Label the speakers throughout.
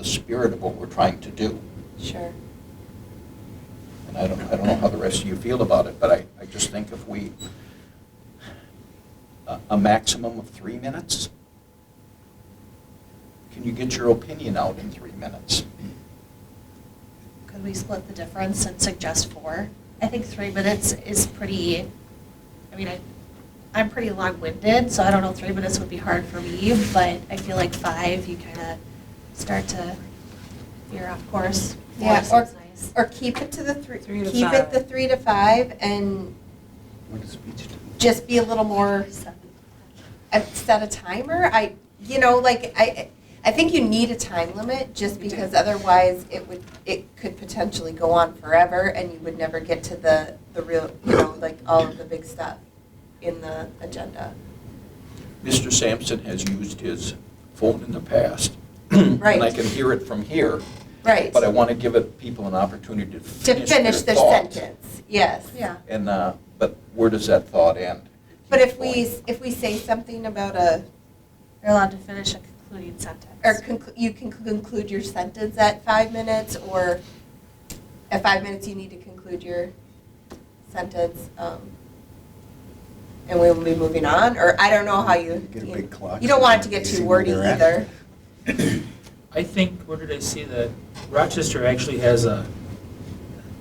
Speaker 1: spirit of what we're trying to do.
Speaker 2: Sure.
Speaker 1: And I don't, I don't know how the rest of you feel about it, but I, I just think if we, a- a maximum of three minutes? Can you get your opinion out in three minutes?
Speaker 2: Could we split the difference and suggest four? I think three minutes is pretty, I mean, I, I'm pretty long-winded, so I don't know, three minutes would be hard for me, but I feel like five, you kind of start to veer off course. Four
Speaker 3: Yeah, or,
Speaker 2: seems nice.
Speaker 3: or keep it to the three,
Speaker 4: Three to
Speaker 3: keep it
Speaker 4: five.
Speaker 3: the three to five and
Speaker 5: What is speech to?
Speaker 3: just be a little more,
Speaker 2: Seven.
Speaker 3: uh, set a timer. I, you know, like, I, I think you need a time limit just
Speaker 4: You do.
Speaker 3: because otherwise it would, it could potentially go on forever and you would never get to the, the real, you know, like all of the big stuff in the agenda.
Speaker 1: Mr. Sampson has used his phone in the past. And I
Speaker 3: Right.
Speaker 1: can hear it from here,
Speaker 3: Right.
Speaker 1: but I want to give it- people an opportunity to
Speaker 3: To
Speaker 1: finish their
Speaker 3: finish the
Speaker 1: thought.
Speaker 3: sentence, yes.
Speaker 2: Yeah.
Speaker 1: And, uh, but where does that thought end?
Speaker 3: But if we, if we say something about a,
Speaker 2: You're allowed to finish a concluding sentence.
Speaker 3: Or conclu- you can conclude your sentence at five minutes, or at five minutes, you need to conclude your sentence. um, And we will be moving on, or I don't know how you.
Speaker 5: Get a big clock.
Speaker 3: You don't want it to get too wordy either.
Speaker 6: I think, where did I see that? Rochester actually has a,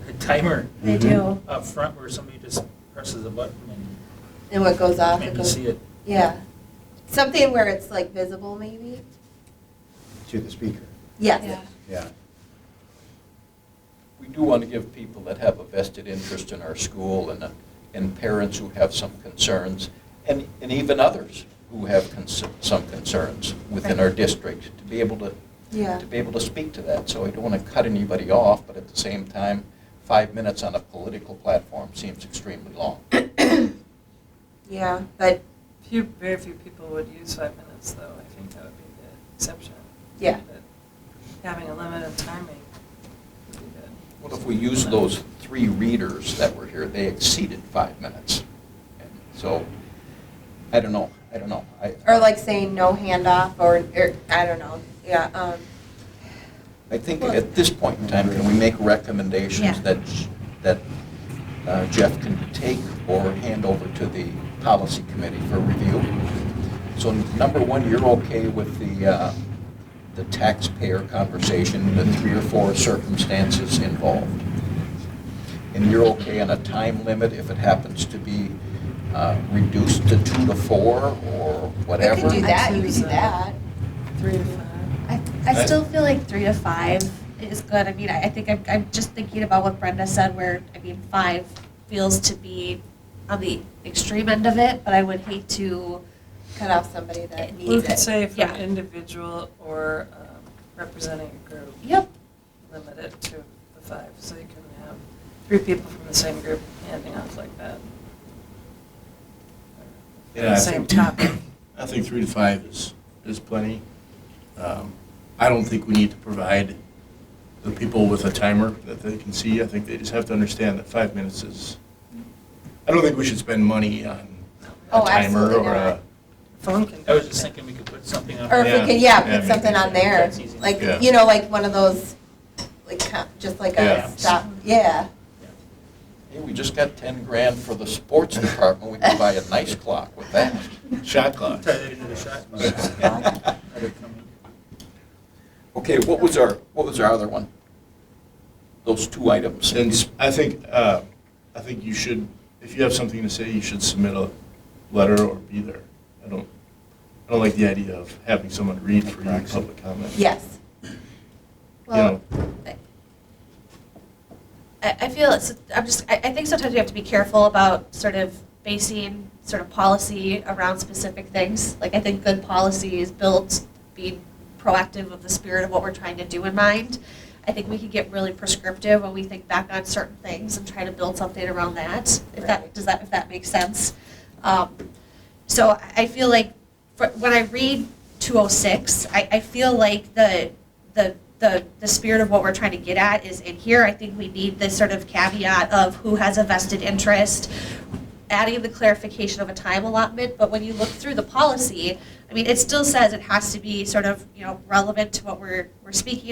Speaker 6: a timer
Speaker 2: They do.
Speaker 6: up front where somebody just presses a button
Speaker 3: And what goes off,
Speaker 6: and
Speaker 3: it
Speaker 6: maybe
Speaker 3: goes,
Speaker 6: see it.
Speaker 3: yeah. Something where it's like visible, maybe?
Speaker 5: To the speaker,
Speaker 3: Yes.
Speaker 2: Yeah.
Speaker 5: yeah.
Speaker 1: We do want to give people that have a vested interest in our school and, uh, and parents who have some concerns, and, and even others who have cons- some concerns within our district, to be able to,
Speaker 3: Yeah.
Speaker 1: to be able to speak to that. So I don't want to cut anybody off, but at the same time, five minutes on a political platform seems extremely long.
Speaker 3: Yeah, but,
Speaker 4: Few, very few people would use five minutes, though. I think that would be the exception.
Speaker 3: Yeah.
Speaker 4: But Having a limit of timing would be good.
Speaker 1: Well, if we use those three readers that were here, they exceeded five minutes. And So, I don't know, I don't know. I-
Speaker 3: or like saying no handoff, or, or, I don't know, yeah. um,
Speaker 1: I think at this point in time, can we make recommendations
Speaker 2: Yeah.
Speaker 1: that, that uh, Jeff can take or hand over to the policy committee for review? So number one, you're okay with the, uh, the taxpayer conversation, the three or four circumstances involved? And you're okay on a time limit if it happens to be uh, reduced to two to four or whatever?
Speaker 3: You could do that, you could do
Speaker 4: Absolutely.
Speaker 3: that.
Speaker 4: Three to five.
Speaker 2: I, I still feel like three to five is good. I mean, I, I think I'm, I'm just thinking about what Brenda said, where, I mean, five feels to be on the extreme end of it, but I would hate to,
Speaker 3: Cut off somebody that needs it.
Speaker 4: We could say for
Speaker 2: Yeah.
Speaker 4: an individual or um, representing a group,
Speaker 2: yep,
Speaker 4: limit it to the five, so you can have three people from the same group handing off like that.
Speaker 7: Yeah, I
Speaker 4: Same
Speaker 7: think-
Speaker 4: topic.
Speaker 7: I think three to five is, is plenty. Um, I don't think we need to provide the people with a timer that they can see. I think they just have to understand that five minutes is, I don't think we should spend money on a
Speaker 3: Oh,
Speaker 7: timer
Speaker 3: absolutely
Speaker 7: or
Speaker 3: not.
Speaker 7: a.
Speaker 4: Phone can.
Speaker 6: I was just thinking we could put something on.
Speaker 3: Or if we
Speaker 7: Yeah.
Speaker 3: could, yeah,
Speaker 7: Yeah,
Speaker 3: put
Speaker 7: maybe
Speaker 3: something on there,
Speaker 6: that's easy.
Speaker 3: like,
Speaker 7: Yeah.
Speaker 3: you know, like one of those, like, co- just like a
Speaker 7: Yeah.
Speaker 3: stop, yeah.
Speaker 1: Hey, we just got 10 grand for the sports department, we can buy a nice clock with that.
Speaker 7: Shot clock.
Speaker 6: Tie that into the shot.
Speaker 1: Okay, what was our, what was our other one? Those two items.
Speaker 7: Since, I think, uh, I think you should, if you have something to say, you should submit a letter or be there. I don't, I don't like the idea of having someone read for you in public comment.
Speaker 3: Yes.
Speaker 7: You know,
Speaker 2: well, I, I feel it's, I'm just, I, I think sometimes we have to be careful about sort of basing sort of policy around specific things. Like, I think good policy is built being proactive of the spirit of what we're trying to do in mind. I think we could get really prescriptive when we think back on certain things and try to build something around that. If that,
Speaker 3: Right.
Speaker 2: does that, if that makes sense. Um, so I- I feel like, for, when I read 206, I, I feel like the, the, the, the spirit of what we're trying to get at is in here. I think we need this sort of caveat of who has a vested interest, adding the clarification of a time allotment, but when you look through the policy, I mean, it still says it has to be sort of, you know, relevant to what we're, we're speaking